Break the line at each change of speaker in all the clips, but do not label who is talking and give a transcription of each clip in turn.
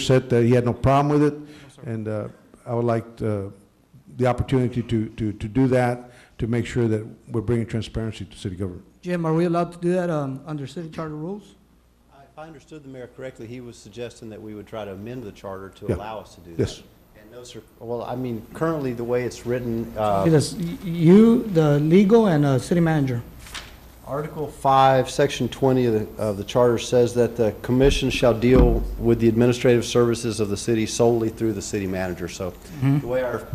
said that he had no problem with it, and uh, I would like uh, the opportunity to, to, to do that, to make sure that we're bringing transparency to city government.
Jim, are we allowed to do that um, under city charter rules?
If I understood the mayor correctly, he was suggesting that we would try to amend the charter to
Yeah.
allow us to do that.
Yes.
And no, sir, well, I mean, currently, the way it's written, uh,
Because y- you, the legal, and uh, city manager.
Article 5, Section 20 of the, of the charter says that the commission shall deal with the administrative services of the city solely through the city manager. So
Mm-hmm.
the way our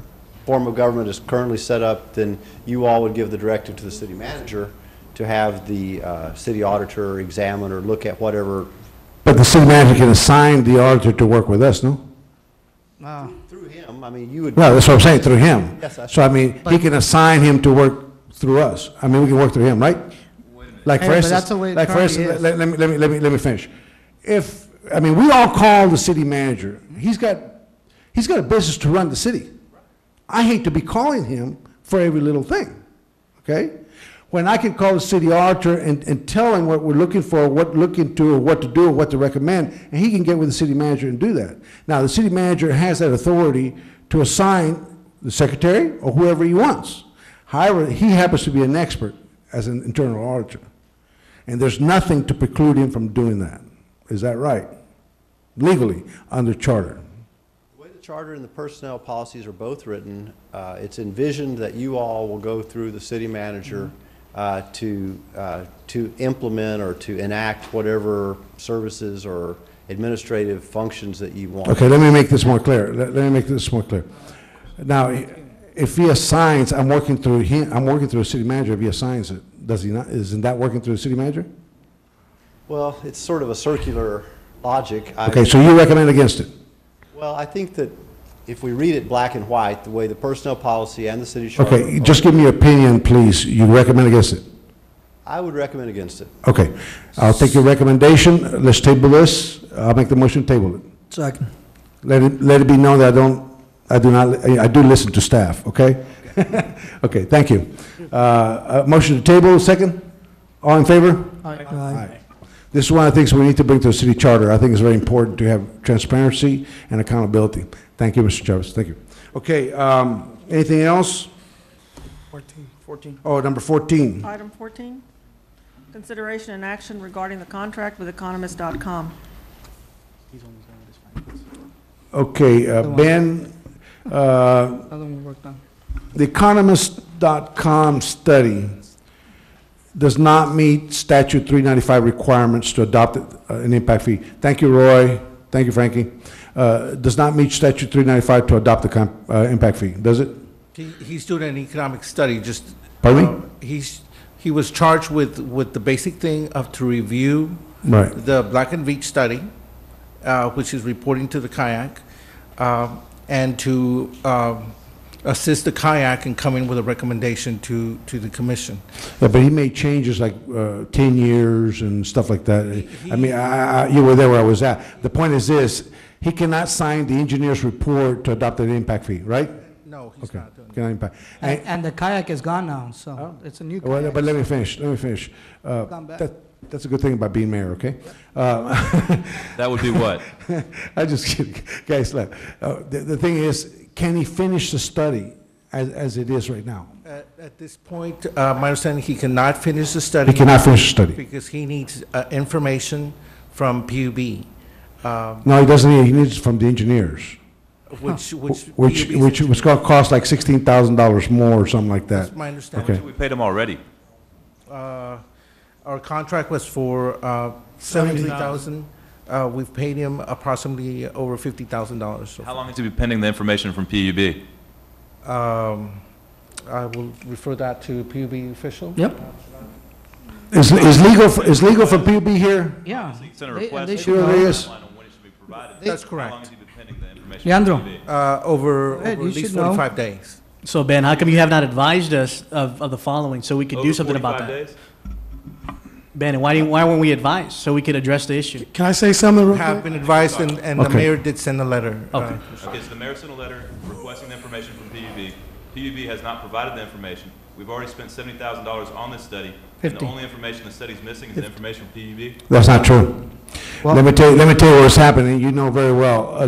form of government is currently set up, then you all would give the directive to the city manager to have the uh, city auditor examine or look at whatever
But the city manager can assign the auditor to work with us, no?
Ah.
through him. I mean, you would.
No, that's what I'm saying, through him.
Yes, I-
So I mean, he can assign him to work through us. I mean, we can work through him, right? Like
Hey,
for
but
instance,
that's the way it
like for
currently
instance,
is.
let let me, let me, let me, let me finish. If, I mean, we all call the city manager. He's got, he's got a business to run the city. I hate to be calling him for every little thing, okay? When I can call the city auditor and, and tell him what we're looking for, what to look into, or what to do, or what to recommend, and he can get with the city manager and do that. Now, the city manager has that authority to assign the secretary or whoever he wants. However, he happens to be an expert as an internal auditor, and there's nothing to preclude him from doing that. Is that right? Legally, under charter.
The way the charter and the personnel policies are both written, uh, it's envisioned that you all will go through the city manager
Mm-hmm.
uh, to, uh, to implement or to enact whatever services or administrative functions that you want.
Okay, let me make this more clear. Let, let me make this more clear. Now, if he assigns, I'm working through him, I'm working through a city manager, if he assigns it, does he not, isn't that working through the city manager?
Well, it's sort of a circular logic. I-
Okay, so you recommend against it?
Well, I think that if we read it black and white, the way the personnel policy and the city charter.
Okay, just give me your opinion, please. You recommend against it?
I would recommend against it.
Okay, I'll take your recommendation. Let's table this. I'll make the motion to table it.
Second.
Let it, let it be known that I don't, I do not, I I do listen to staff, okay? Okay, thank you. Uh, uh, motion to table, second? All in favor?
Aye.
Aye. This is one of the things we need to bring to the city charter. I think it's very important to have transparency and accountability. Thank you, Mr. Chavez, thank you. Okay, um, anything else?
Fourteen. Fourteen.
Oh, number 14.
Item 14, consideration and action regarding the contract with economist.com.
He's only going with his finance.
Okay, uh,
The one.
Ben, uh,
Another one worked on.
theeconomist.com study does not meet statute 395 requirements to adopt uh, an impact fee. Thank you, Roy. Thank you, Frankie. Uh, Does not meet statute 395 to adopt the com- uh, impact fee, does it?
He, he's doing an economic study, just. uh,
Pardon me?
He's, he was charged with, with the basic thing of to review
Right.
the Black and Veatch study, uh, which is reporting to the kayak, um, and to, um, assist the kayak in coming with a recommendation to, to the commission.
Yeah, but he made changes like uh, 10 years and stuff like that. I mean, I, I- you were there where I was at. The point is this, he cannot sign the engineer's report to adopt an impact fee, right?
No, he's
Okay,
not doing that.
cannot impact.
And
And-
and the kayak is gone now, so
Oh.
it's a new
well, But
kayak.
let me finish, let me finish. Uh,
Come back.
that- That's a good thing about being mayor, okay? Uh,
That would be what?
I just kidding, guys, look, uh, the the thing is, can he finish the study as as it is right now?
At, at this point, uh, my understanding, he cannot finish the study.
He cannot finish the study.
Because he needs, uh, information from PUB, um,
No, he doesn't, need- he needs it from the engineers.
which, which.
Which,
PUB's
which was gonna cost like sixteen thousand dollars more or something like that.
That's my understanding.
Okay.
We paid them already.
Uh, Our contract was for uh, 73000 Uh, We've paid him approximately over $50,000. so
How long has he been pending the information from PUB?
far. Um, I will refer that to PUB official.
Yep,
Is, is legal, f- is legal for PUB here?
yeah.
He sent
They-
a request.
they
should Sure know. it is.
Timeline on when it should be provided.
That's
How long has
correct.
he been pending the information? from
Leandro.
PUB?
Uh, Over,
Ed,
over
you
at least
should know.
45 days.
So Ben, how come you have not advised us of, of the following, so we could do
Over
something about
45
that?
days?
Ben, and why didn't, why weren't we advised, so we could address the issue?
Can I say something real
Have
quick?
been advised, and and the
Okay.
mayor did send a letter. uh,
Okay.
Okay, so the mayor sent a letter requesting the information from PUB. PUB has not provided the information. We've already spent seventy thousand dollars on this study. And the
Fifty.
only information the study's missing is the information from PUB.
That's not true. Let me tell you, let me tell you what's happening, you know very well. Uh,